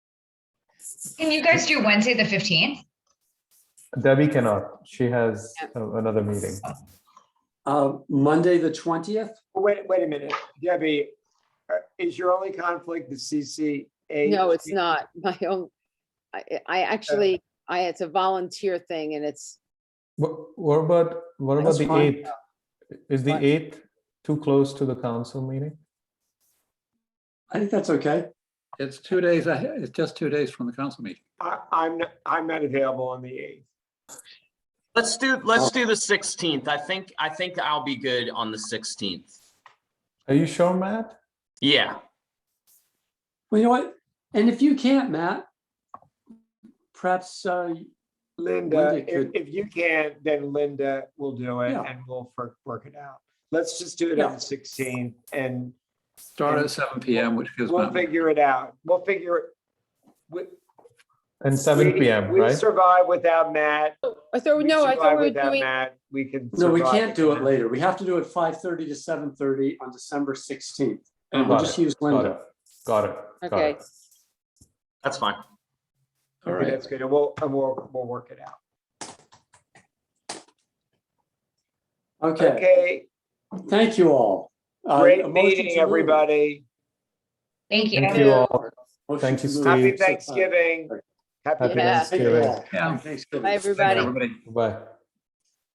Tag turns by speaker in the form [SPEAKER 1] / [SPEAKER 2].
[SPEAKER 1] Can you guys do Wednesday, the fifteenth?
[SPEAKER 2] Debbie cannot. She has a- another meeting.
[SPEAKER 3] Uh, Monday, the twentieth?
[SPEAKER 4] Wait, wait a minute, Debbie, uh, is your only conflict the CCA?
[SPEAKER 5] No, it's not my own. I,
[SPEAKER 4] Uh,
[SPEAKER 5] I actually, I, it's a volunteer thing and it's,
[SPEAKER 2] What, what about, what about
[SPEAKER 3] That's
[SPEAKER 2] the
[SPEAKER 3] fine.
[SPEAKER 2] eighth? Is the
[SPEAKER 3] Fine.
[SPEAKER 2] eighth too close to the council meeting?
[SPEAKER 3] I think that's okay.
[SPEAKER 6] It's two days, ahe- it's just two days from the council meeting.
[SPEAKER 4] I, I'm, not- I'm not available on the eighth.
[SPEAKER 7] Let's do, let's do the sixteenth. I think, I think I'll be good on the sixteenth.
[SPEAKER 2] Are you sure, Matt?
[SPEAKER 7] Yeah,
[SPEAKER 3] Well, you know what? And if you can't, Matt, perhaps, uh,
[SPEAKER 4] Linda,
[SPEAKER 3] Wendy
[SPEAKER 4] if,
[SPEAKER 3] could-
[SPEAKER 4] if you can, then Linda will do it
[SPEAKER 3] Yeah.
[SPEAKER 4] and we'll work, work it out. Let's just do it on
[SPEAKER 3] Yeah.
[SPEAKER 4] the sixteenth and
[SPEAKER 6] Start at seven PM, which gives
[SPEAKER 4] we'll
[SPEAKER 6] them
[SPEAKER 4] figure it out. We'll figure it. we-
[SPEAKER 2] And seven
[SPEAKER 4] we-
[SPEAKER 2] PM,
[SPEAKER 4] We
[SPEAKER 2] right?
[SPEAKER 4] survive without Matt.
[SPEAKER 5] I thought,
[SPEAKER 4] We
[SPEAKER 5] Oh, no, I
[SPEAKER 4] survive
[SPEAKER 5] thought we were
[SPEAKER 4] without
[SPEAKER 5] doing,
[SPEAKER 4] Matt. We can.
[SPEAKER 3] no, we
[SPEAKER 4] survive
[SPEAKER 3] can't do it
[SPEAKER 4] without-
[SPEAKER 3] later. We have to do it five thirty to seven thirty on December sixteenth. And we'll
[SPEAKER 2] Got
[SPEAKER 3] just
[SPEAKER 2] it,
[SPEAKER 3] use
[SPEAKER 2] Got
[SPEAKER 3] Linda.
[SPEAKER 2] it. Got it. got
[SPEAKER 5] Okay.
[SPEAKER 2] it.
[SPEAKER 7] that's fine.
[SPEAKER 3] All
[SPEAKER 4] Okay,
[SPEAKER 3] right.
[SPEAKER 4] That's good. And we'll, and we'll, we'll work it out.
[SPEAKER 3] Okay,
[SPEAKER 4] Okay,
[SPEAKER 3] thank you all. Uh, a
[SPEAKER 4] great
[SPEAKER 3] motion
[SPEAKER 4] meeting,
[SPEAKER 3] to move.
[SPEAKER 4] everybody.
[SPEAKER 1] Thank you.
[SPEAKER 2] Thank you all.
[SPEAKER 3] Motion
[SPEAKER 2] Thank
[SPEAKER 3] to
[SPEAKER 2] you,
[SPEAKER 3] move.
[SPEAKER 2] Steve.
[SPEAKER 4] Happy
[SPEAKER 2] Thanks.
[SPEAKER 4] Thanksgiving.
[SPEAKER 3] Happy
[SPEAKER 2] Happy
[SPEAKER 5] Yeah.
[SPEAKER 3] Thank you
[SPEAKER 2] Thanksgiving.
[SPEAKER 3] all.
[SPEAKER 6] Yeah.
[SPEAKER 3] Thanksgiving.
[SPEAKER 5] Bye, everybody.
[SPEAKER 6] everybody.
[SPEAKER 2] Bye.